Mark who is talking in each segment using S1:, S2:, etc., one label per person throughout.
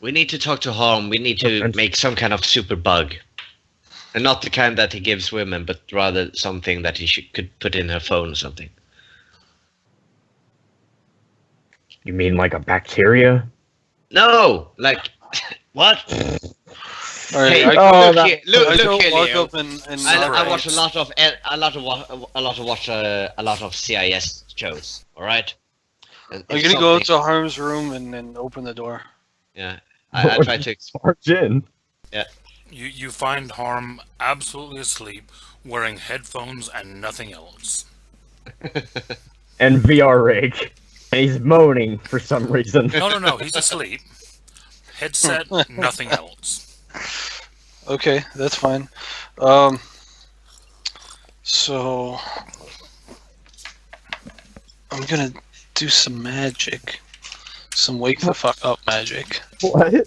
S1: We need to talk to Harm. We need to
S2: And-
S1: make some kind of super bug. And not the kind that he gives women, but rather something that he should, could put in her phone or something.
S2: You mean like a bacteria?
S1: No! Like, what?
S3: All right,
S1: Hey, uh,
S3: I,
S2: oh,
S1: look,
S2: that-
S1: here, look,
S3: I
S1: look
S3: don't
S1: here,
S3: log
S1: Leo.
S3: up and, and uh,
S1: I,
S3: not
S1: I
S3: write.
S1: watch a lot of a lot of wa- a lot of watch uh, a lot of CIS shows. All right. And
S3: I'm
S1: if
S3: gonna go
S1: something-
S3: to Harm's room and then open the door.
S1: Yeah, I, I try to. ex-
S2: Barge in.
S4: You, you find Harm absolutely asleep, wearing headphones and nothing else.
S2: And VR rig. And he's moaning for some reason.
S4: No, no, no, he's asleep. Headset, nothing else.
S3: Okay, that's fine. Um, so I'm gonna do some magic, some wake the fuck up magic.
S2: What?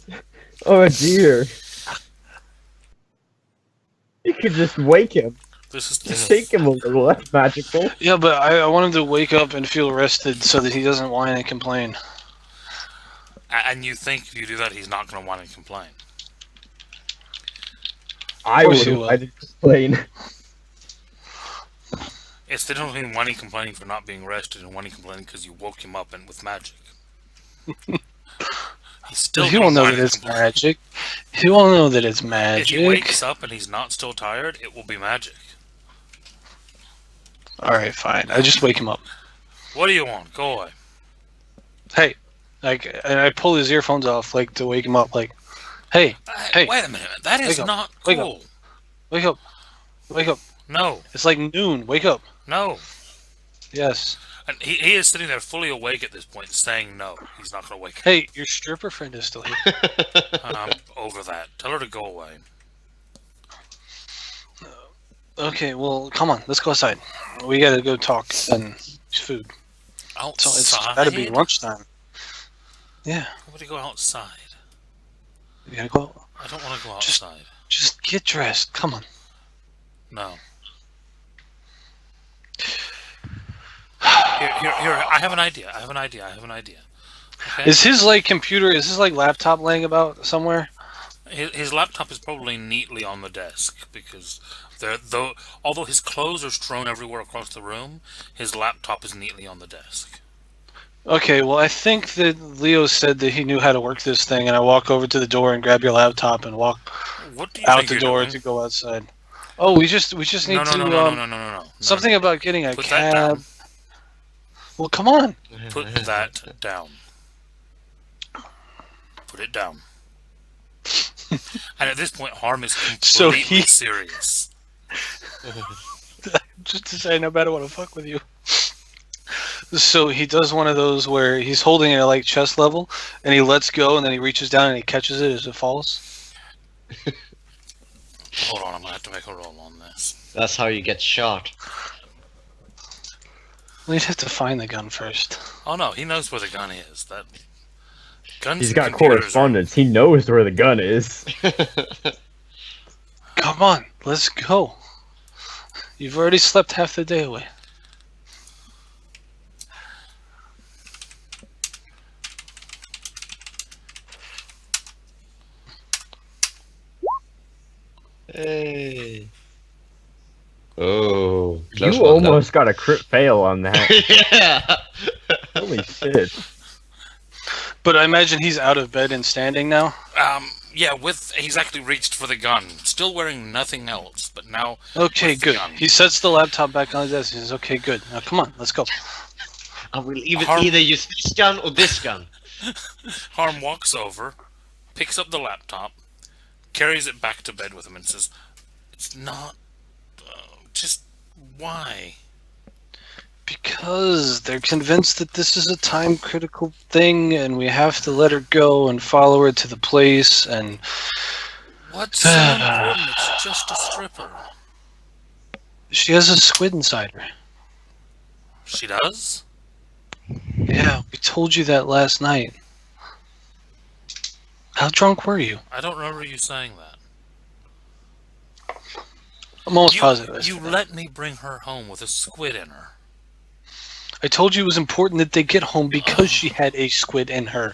S2: Oh dear. You could just wake him.
S4: This is,
S2: Just
S4: this is
S2: shake him a little. That's magical.
S3: Yeah, but I, I want him to wake up and feel rested so that he doesn't whine and complain.
S4: a- and you think if you do that, he's not going to want to complain.
S2: I
S3: course you
S2: would.
S3: will.
S2: I just complain.
S4: It's the difference between Wani complaining for not being rested and Wani complaining because you woke him up and with magic. he's still.
S3: he won't
S4: gonna
S3: know
S4: whine
S3: that
S4: and
S3: it's
S4: complain.
S3: magic. He won't know that it's
S4: If
S3: magic.
S4: he wakes up and he's not still tired, it will be magic.
S3: All right, fine. I just wake him up.
S4: What do you want? Go away.
S3: Hey, like, and I pull his earphones off, like to wake him up. Like, hey, Hey.
S4: wait a minute. That is
S3: Wake up.
S4: not
S3: Wake up.
S4: cool.
S3: wake up, wake up.
S4: No,
S3: It's like noon. Wake up.
S4: no.
S3: Yes.
S4: And he, he is sitting there fully awake at this point, saying no. He's not going to wake up.
S3: Hey, your stripper friend is still here.
S4: I'm over that. Tell her to go away.
S3: okay, well, come on, let's go outside. We gotta go talk and eat food. So it's
S4: Outside.
S3: gotta be lunchtime.
S4: I'm to go outside.
S3: We gotta go.
S4: I don't want to go
S3: Just-
S4: outside.
S3: Just get dressed. Come on.
S4: No. Here, here, here. I have an idea. I have an idea. I have an idea. Okay?
S3: Is his like computer? Is his like laptop laying about somewhere?
S4: His, his laptop is probably neatly on the desk because there, though, although his clothes are strewn everywhere across the room, his laptop is neatly on the desk.
S3: Okay, well, I think that Leo said that he knew how to work this thing, and I walk over to the door and grab your laptop and walk
S4: What do you
S3: out
S4: think
S3: the
S4: you're
S3: door
S4: doing?
S3: to go outside. Oh, we just we just need
S4: No, no,
S3: to
S4: no, no,
S3: um,
S4: no, no, no, no, no.
S3: something about getting a
S4: Put that down.
S3: cab. Well, come on.
S4: Put that down. Put it down. and at this point, Harm is completely
S3: So he-
S4: serious.
S3: just to say, no matter what, I'll fuck with you. So he does one of those where he's holding it at like chest level, and he lets go, and then he reaches down and he catches it as it falls.
S4: Hold on, I'm gonna have to make a roll on this.
S1: That's how you get shot.
S3: We'd have to find the gun first.
S4: Oh no, he knows where the gun is. That guns.
S2: He's
S4: and
S2: got
S4: computers are-
S2: correspondence. He knows where the gun is.
S3: Come on, let's go. You've already slept half the day away.
S1: Hey. Oh, close
S2: you
S1: one, though.
S2: almost got a crit fail on that.
S1: yeah.
S2: Holy shit.
S3: But I imagine he's out of bed and standing now.
S4: Um, yeah, with he's actually reached for the gun, still wearing nothing else, but now
S3: Okay,
S4: With the
S3: good.
S4: gun.
S3: He sets the laptop back on the desk. He says, "Okay, good. Now come on, let's go."
S1: I will even
S4: Harm-
S1: either use this gun or this gun.
S4: Harm walks over, picks up the laptop, carries it back to bed with him, and says, "It's not. Uh, just why?"
S3: Because they're convinced that this is a time critical thing and we have to let her go and follow her to the place and
S4: What's so important? It's just a stripper.
S3: she has a squid inside her.
S4: She does?
S3: Yeah, we told you that last night. How drunk were you?
S4: I don't remember you saying that.
S3: I'm almost
S4: you,
S3: positive.
S4: You let me bring her home with a squid in her.
S3: I told you it was important that they get home because she had a squid in her.